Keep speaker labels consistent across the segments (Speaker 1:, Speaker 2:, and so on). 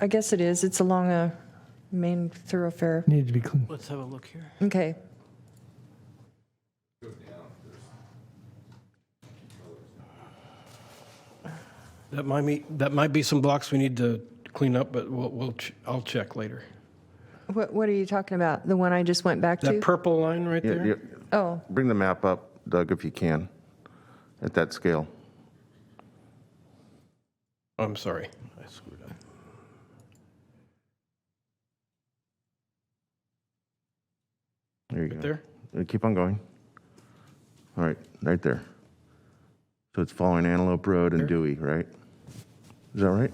Speaker 1: I guess it is. It's along a main thoroughfare.
Speaker 2: Needed to be clean.
Speaker 3: Let's have a look here.
Speaker 1: Okay.
Speaker 3: That might be, that might be some blocks we need to clean up, but we'll, we'll, ch- I'll check later.
Speaker 1: What, what are you talking about? The one I just went back
Speaker 3: That
Speaker 1: to?
Speaker 3: purple line right
Speaker 4: Yeah, yeah.
Speaker 3: there?
Speaker 1: Oh,
Speaker 4: Bring the map up, Doug, if you can, at that scale.
Speaker 3: Oh, I'm sorry, I screwed up.
Speaker 4: There you
Speaker 3: Right
Speaker 4: go.
Speaker 3: there?
Speaker 4: Uh, Keep on going. All right, right there. So it's following Antelope Road and Dewey, right? Is that right?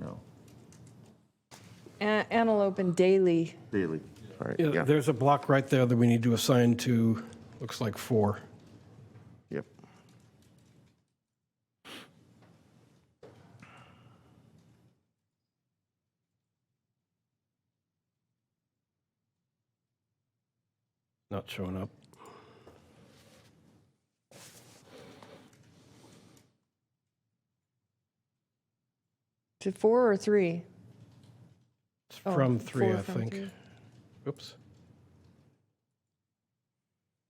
Speaker 4: No.
Speaker 1: An- Antelope and Daly.
Speaker 4: Daily. All right,
Speaker 3: Yeah,
Speaker 4: yeah,
Speaker 3: there's a block right there that we need to assign to, looks like four.
Speaker 4: yep.
Speaker 3: Not showing up.
Speaker 1: To four or three?
Speaker 3: It's
Speaker 1: Oh,
Speaker 3: from three,
Speaker 1: four
Speaker 3: I
Speaker 1: from
Speaker 3: think.
Speaker 1: three.
Speaker 3: Oops.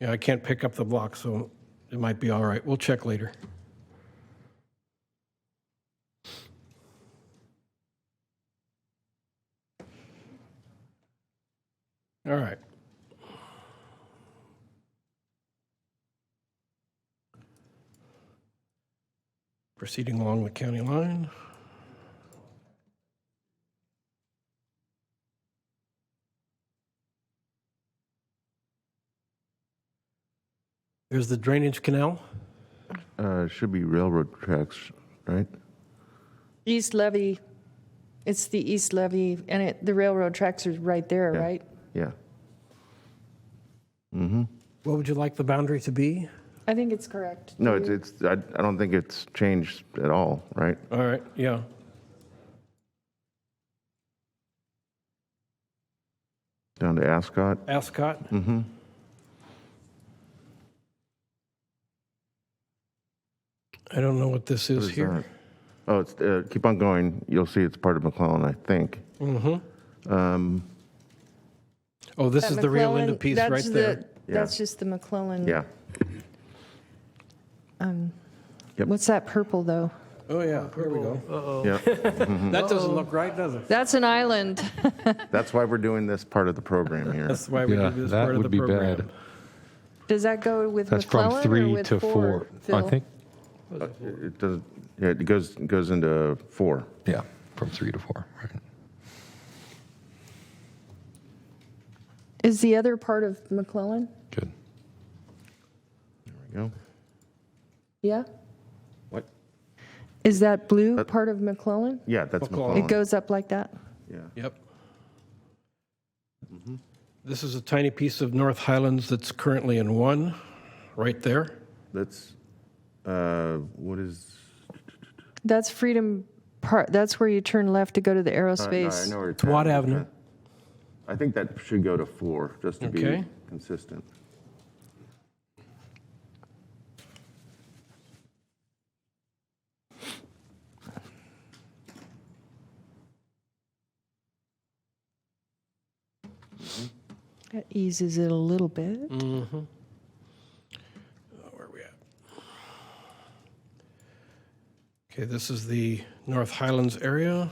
Speaker 3: Yeah, I can't pick up the block, so it might be all right. We'll check later. All right. Proceeding along the county line. There's the drainage canal.
Speaker 4: Uh, Should be railroad tracks, right?
Speaker 1: East Levy. It's the East Levy, and it, the railroad tracks are right there,
Speaker 4: Yeah.
Speaker 1: right?
Speaker 4: Yeah. Mm-hmm.
Speaker 3: What would you like the boundary to be?
Speaker 1: I think it's correct.
Speaker 4: No, it's, it's. I I don't think it's changed at all, right?
Speaker 3: All right, yeah.
Speaker 4: Down to Ascot?
Speaker 3: Ascot?
Speaker 4: Mm-hmm.
Speaker 3: I don't know what this is here.
Speaker 4: Oh, it's, uh, keep on going. You'll see it's part of McClellan, I think.
Speaker 3: Mm-hmm.
Speaker 4: Um,
Speaker 3: Oh, this is
Speaker 1: That
Speaker 3: the Rio Linda
Speaker 1: McClellan-
Speaker 3: piece
Speaker 1: that's
Speaker 3: right
Speaker 1: the-
Speaker 3: there.
Speaker 4: Yeah.
Speaker 1: That's just the McClellan.
Speaker 4: yeah. Yep.
Speaker 1: What's that purple, though?
Speaker 3: Oh, yeah, here we go.
Speaker 4: Yeah.
Speaker 5: Uh-huh.
Speaker 3: That doesn't look right, does it?
Speaker 1: That's an island.
Speaker 4: That's why we're doing this part of the program here.
Speaker 3: That's why we
Speaker 5: Yeah,
Speaker 3: did this
Speaker 5: that
Speaker 3: part of
Speaker 5: would
Speaker 3: the
Speaker 5: be bad.
Speaker 3: program.
Speaker 1: Does that go with
Speaker 5: That's
Speaker 1: McClellan
Speaker 5: from
Speaker 1: or
Speaker 5: three
Speaker 1: with
Speaker 5: to four. I
Speaker 1: Phil?
Speaker 5: think,
Speaker 4: It does, yeah, it goes, it goes into four.
Speaker 5: yeah, from three to four, right.
Speaker 1: Is the other part of McClellan?
Speaker 5: Good.
Speaker 4: There we go.
Speaker 1: Yeah?
Speaker 4: What?
Speaker 1: Is that blue
Speaker 4: That-
Speaker 1: part of McClellan?
Speaker 4: Yeah, that's
Speaker 3: McClellan.
Speaker 4: McClellan.
Speaker 1: It goes up like that?
Speaker 4: Yeah.
Speaker 3: Yep.
Speaker 5: Mm-hmm.
Speaker 3: This is a tiny piece of North Highlands that's currently in one, right there.
Speaker 4: That's, uh, what is?
Speaker 1: That's Freedom Park, that's where you turn left to go to the
Speaker 4: Uh, I
Speaker 1: aerospace.
Speaker 4: know where it's
Speaker 3: Watt
Speaker 4: at.
Speaker 3: Avenue.
Speaker 4: I think that should go to four, just to be
Speaker 3: Okay.
Speaker 4: consistent.
Speaker 1: That eases it a little bit.
Speaker 3: Oh, Where are we at? Okay, this is the North Highlands area.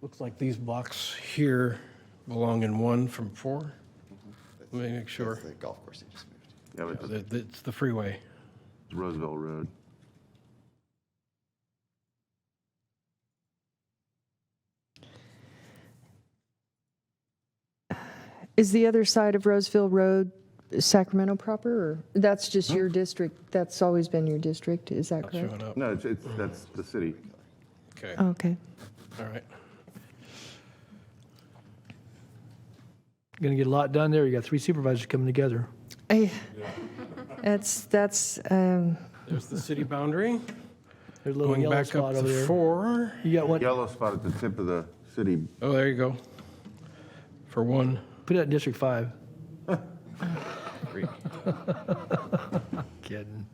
Speaker 3: Looks like these blocks here belong in one from four. Let me make sure.
Speaker 6: The golf course they just moved.
Speaker 4: Yeah, but
Speaker 3: That- It's the freeway.
Speaker 4: that's Roosevelt Road.
Speaker 1: Is the other side of Roseville Road Sacramento proper, or that's just your district? That's always been your district, is that
Speaker 3: Not
Speaker 1: correct?
Speaker 3: showing up.
Speaker 4: No, it's, it's, that's the city.
Speaker 3: Okay,
Speaker 1: Oh, Okay.
Speaker 3: all right.
Speaker 2: Going to get a lot done there. You got three supervisors coming together.
Speaker 1: I- That's, that's, um,
Speaker 3: There's the city boundary.
Speaker 2: There's a little
Speaker 3: Going
Speaker 2: yellow
Speaker 3: back up
Speaker 2: spot over
Speaker 3: to
Speaker 2: there.
Speaker 3: four.
Speaker 2: You got one,
Speaker 4: Yellow spot at the tip of the city.
Speaker 3: Oh, there you go. For one.
Speaker 2: put it in District Five.
Speaker 3: Three.
Speaker 2: Kidding.